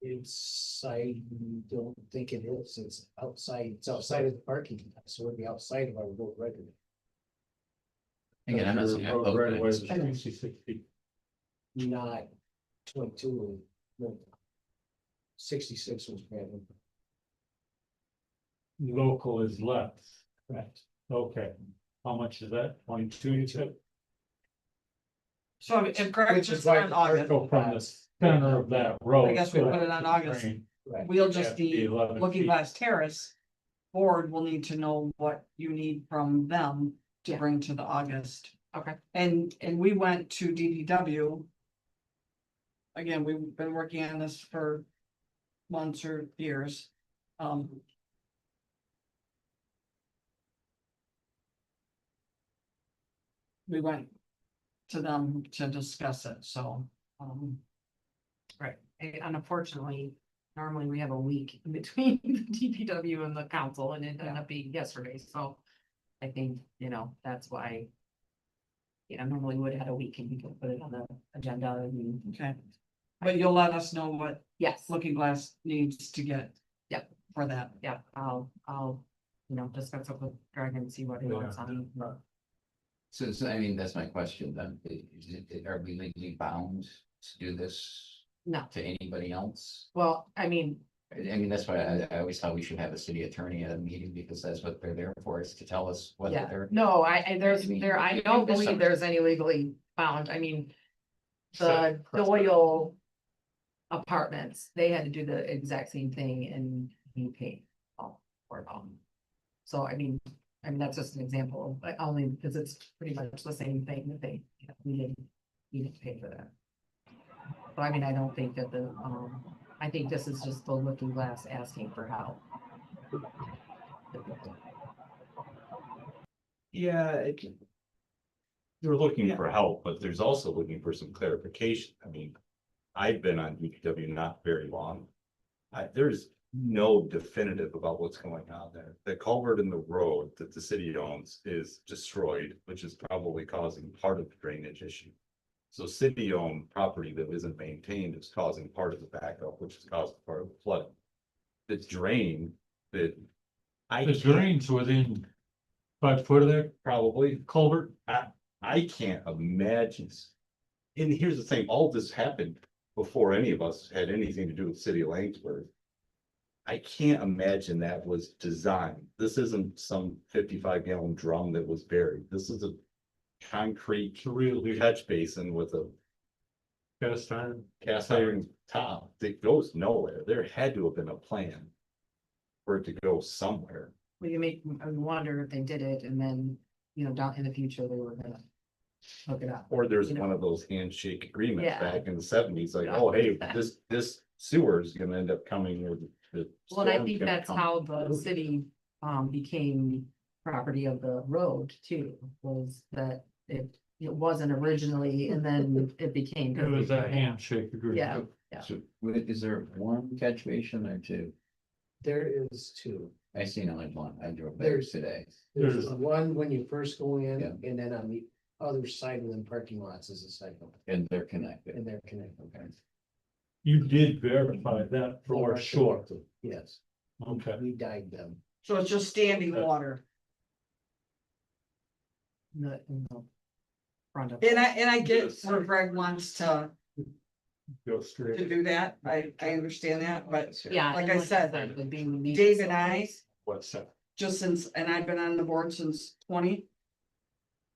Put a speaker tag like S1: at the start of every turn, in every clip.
S1: inside, we don't think it is, it's outside, it's outside of the parking, lot, so it'd be outside of our road record.
S2: Again, I'm not saying I vote, but it's-
S1: Not twenty-two. and no. Sixty-six was random.
S3: Local is left,
S1: Correct.
S3: okay, how much is that, twenty-two, you said?
S4: So I mean, if Greg
S1: Which
S4: just
S1: is
S4: went
S1: why
S4: on
S1: the
S4: August,
S3: Go from the center of that road.
S4: I guess we put it on August.
S1: Right.
S4: we'll just
S3: The
S4: be
S3: 11
S4: looking
S3: feet.
S4: glass terrace. Board will need to know what you need from them to bring to the August.
S5: Okay.
S4: And, and we went to DDW. Again, we've been working on this for months or years. Um, We went to them to discuss it, so, um,
S5: Right, and unfortunately, normally we have a week in between the DPW and the council and it ended up being yesterday, so. I think, you know, that's why. You know, normally would have had a week and we could put it on the agenda and,
S4: okay. But you'll let us know what
S5: yes,
S4: Looking Glass needs to get.
S5: Yep.
S4: For that.
S5: yeah, I'll, I'll, you know, discuss it with Greg and see what he wants on.
S2: So, so I mean, that's my question then. I- is it- Are we legally bound to do this
S5: No,
S2: to anybody else?
S5: well, I mean,
S2: I I mean, that's why I, I always thought we should have a city attorney at a meeting because that's what they're there for, is to tell us whether
S5: Yeah,
S2: they're.
S5: no, I, I, there's,
S2: I mean,
S5: there, I
S2: you
S5: don't
S2: think there's
S5: believe
S2: some-
S5: there's any legally bound, I mean. The
S3: Set precedent.
S5: Doyle. Apartments, they had to do the exact same thing and he paid all for it all. So I mean, I mean, that's just an example, but only because it's pretty much the same thing that they, you know, we didn't, you didn't pay for that. But I mean, I don't think that the, um, I think this is just the looking glass asking for help.
S6: Yeah, it- They're looking for help, but there's also looking for some clarification. I mean, I've been on DPW not very long. I, there's no definitive about what's going on there. The culvert in the road that the city owns is destroyed, which is probably causing part of the drainage issue. So city-owned property that isn't maintained is causing part of the backup, which is causing part of the flooding. The drain that. I
S3: The
S6: can't-
S3: drains within five foot of there,
S6: Probably,
S3: culvert,
S6: I can't imagine. s- And here's the thing, all this happened before any of us had anything to do with city of Langsberg. I can't imagine that was designed. This isn't some fifty-five gallon drum that was buried. This is a concrete
S3: it's a real,
S6: catch basin with a
S3: cast iron.
S6: cast iron top that goes nowhere. There had to have been a plan for it to go somewhere.
S5: Well, you make, I wonder if they did it and then, you know, down in the future, they were gonna hook it up.
S6: Or there's
S5: You know.
S6: one of those handshake agreements
S5: Yeah.
S6: back in the seventies, like,
S5: Yeah.
S6: oh, hey, this, this sewer is gonna end up coming with the.
S5: Well, and I
S6: storm's
S5: think
S6: gonna
S5: that's
S6: come.
S5: how the city um became property of the road too, was that it it wasn't originally and then it became.
S3: It was a handshake agreement.
S5: Yeah.
S2: So, wait, is there one catch basin or two?
S1: There is two,
S2: I seen only one. I drove there
S1: There's-
S2: today.
S1: there's
S3: There's-
S1: one when you first go in,
S2: Yeah.
S1: and then on the other side of the parking lots is a cycle,
S2: And they're connected.
S1: and they're connected.
S2: Okay.
S3: You did verify that for sure,
S1: Yes,
S3: okay.
S1: we died them.
S4: So it's just standing
S3: Uh,
S4: water.
S5: The, in the front of.
S4: And I, and I get
S3: Yes.
S4: where Greg wants to,
S3: Go
S4: to
S3: straight.
S4: do that. I, I understand that, but
S5: Yeah.
S4: Like
S5: and
S4: I said,
S5: the being the-
S4: Dave and I,
S3: What's that?
S4: just since, and I've been on the board since twenty.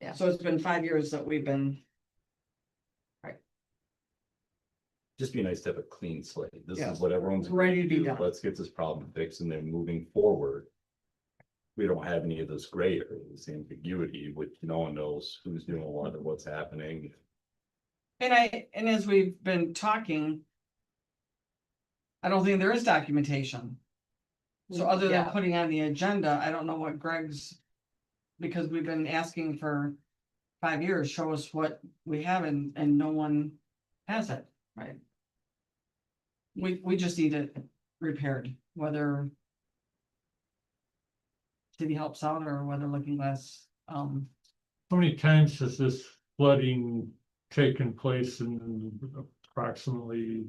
S5: Yeah.
S4: So it's been five years that we've been,
S6: Just be nice to have a clean slate. This
S4: Yeah.
S6: is what everyone's.
S4: Ready to be
S6: do.
S4: done.
S6: Let's get this problem fixed and then moving forward. We don't have any of this gray area, this ambiguity, which no one knows who's doing what or what's happening.
S4: and I, and as we've been talking. I don't think there is documentation. So other than
S5: Yeah.
S4: putting on the agenda, I don't know what Greg's. Because we've been asking for five years, show us what we have and, and no one has it, right? We, we just need it repaired, whether. City helps out or whether Looking Glass, um,
S3: How many times has this flooding taken place in approximately